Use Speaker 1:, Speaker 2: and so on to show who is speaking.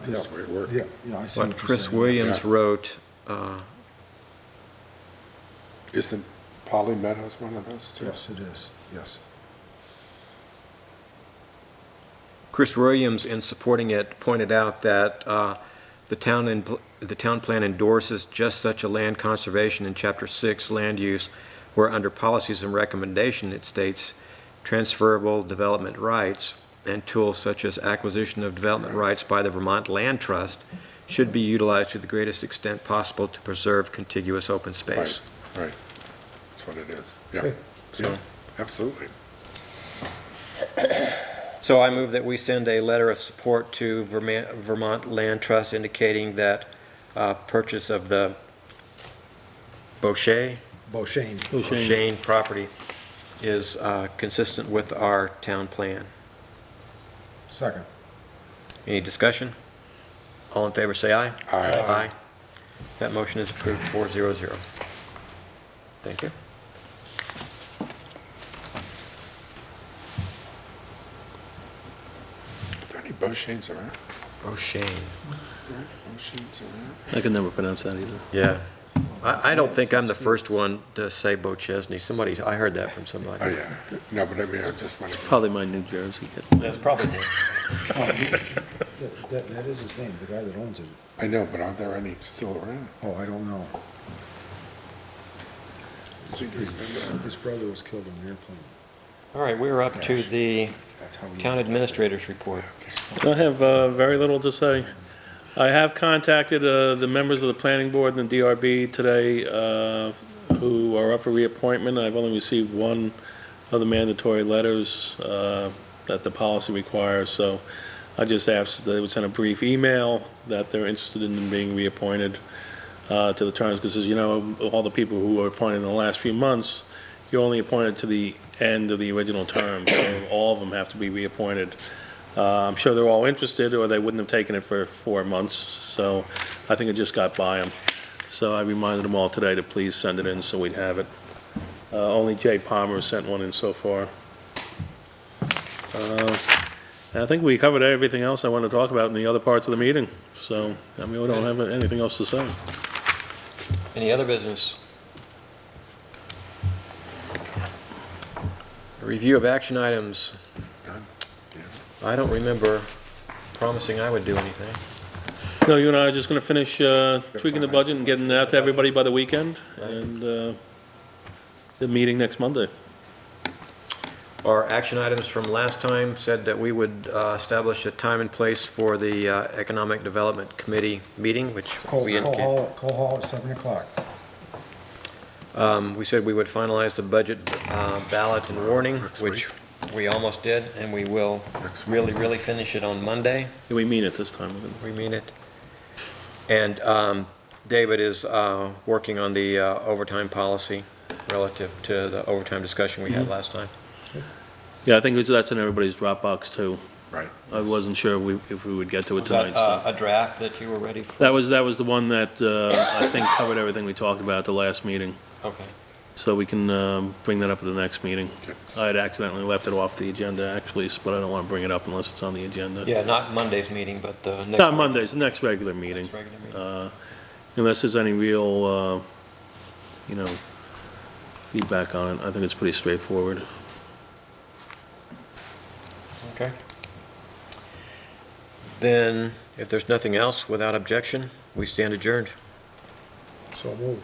Speaker 1: That is where it worked.
Speaker 2: Yeah, yeah, I see what
Speaker 3: But
Speaker 2: you're
Speaker 3: Chris
Speaker 2: saying.
Speaker 3: Williams
Speaker 1: Yeah.
Speaker 3: wrote, uh,
Speaker 1: Isn't Polly Meadows one of those two?
Speaker 2: Yes, it is, yes.
Speaker 3: Chris Williams, in supporting it, pointed out that uh, the town, in- the town plan endorses just such a land conservation in Chapter 6 land use, where under policies and recommendation, it states transferable development rights and tools such as acquisition of development rights by the Vermont Land Trust should be utilized to the greatest extent possible to preserve contiguous open space.
Speaker 1: Right, right. That's what it is. Yeah,
Speaker 2: Okay.
Speaker 1: so, absolutely.
Speaker 3: So I move that we send a letter of support to Verma- Vermont Land Trust indicating that uh, purchase of the Bochet,
Speaker 2: Boshane.
Speaker 3: Shane property is uh, consistent with our town plan.
Speaker 2: Second.
Speaker 3: Any discussion? All in favor, say aye.
Speaker 1: Aye.
Speaker 3: That motion is approved, four zero zero. Thank you.
Speaker 1: Are there any Boshanes around?
Speaker 3: Bochet.
Speaker 1: Boshanes around?
Speaker 4: I can never pronounce that either.
Speaker 3: Yeah. I, I don't think I'm the first one to say Bochesney. Somebody, I heard that from somebody.
Speaker 1: Oh, yeah. No, but I mean, I just want to,
Speaker 4: Probably my New Jersey kid.
Speaker 3: That's probably.
Speaker 2: Oh, he- that- That, that is his name, the guy that owns it.
Speaker 1: I know, but aren't there any still around?
Speaker 2: Oh, I don't know.
Speaker 1: See, do you remember?
Speaker 2: His brother was killed in an airplane.
Speaker 3: All right, we're up to the
Speaker 2: That's how he.
Speaker 3: town administrator's report.
Speaker 4: Okay.
Speaker 5: I have uh, very little to say. I have contacted uh, the members of the planning board and DRB today uh, who are up for reappointment. I've only received one of the mandatory letters uh, that the policy requires, so I just asked that they would send a brief email that they're interested in being reappointed uh, to the terms, because as you know, all the people who were appointed in the last few months, you're only appointed to the end of the original term, so all of them have to be reappointed. Uh, I'm sure they're all interested, or they wouldn't have taken it for four months, so I think it just got by them. So I reminded them all today to please send it in so we'd have it. Uh, Only Jay Palmer sent one in so far. Uh, I think we covered everything else I wanted to talk about in the other parts of the meeting, so, I mean, we don't have anything else to say.
Speaker 3: Any other business? Review of action items.
Speaker 1: None. Yeah.
Speaker 3: I don't remember promising I would do anything.
Speaker 5: No, you and I are just going to finish uh, tweaking the budget and getting it out to everybody by the weekend, and uh, the meeting next Monday.
Speaker 3: Our action items from last time said that we would uh, establish a time and place for the uh, Economic Development Committee meeting, which
Speaker 2: Cole,
Speaker 3: we
Speaker 2: Cole
Speaker 3: indicated.
Speaker 2: Hall, Cole Hall at seven o'clock.
Speaker 3: Um, We said we would finalize the budget uh, ballot and warning,
Speaker 1: Next
Speaker 3: which we almost did, and we will
Speaker 1: Next week.
Speaker 3: really, really finish it on Monday.
Speaker 5: Yeah, We mean it this time.
Speaker 3: We mean it. And um, David is uh, working on the uh, overtime policy relative to the overtime discussion we had last time.
Speaker 5: Yeah, I think that's in everybody's Dropbox, too.
Speaker 1: Right.
Speaker 5: I wasn't sure we- if we would get to it
Speaker 3: Was that,
Speaker 5: tonight,
Speaker 3: uh,
Speaker 5: so.
Speaker 3: A draft that you were ready for?
Speaker 5: That was, that was the one that uh, I think covered everything we talked about at the last meeting,
Speaker 3: Okay.
Speaker 5: so we can um, bring that up at the next meeting.
Speaker 1: Okay.
Speaker 5: I had accidentally left it off the agenda, actually, s- but I don't want to bring it up unless it's on the agenda.
Speaker 3: Yeah, not Monday's meeting, but the next.
Speaker 5: Not Monday, it's the next regular meeting.
Speaker 3: Next regular meeting.
Speaker 5: Uh, Unless there's any real, uh, you know, feedback on it, I think it's pretty straightforward.
Speaker 3: Uh, Okay. Then, if there's nothing else, without objection, we stand adjourned.
Speaker 2: So move.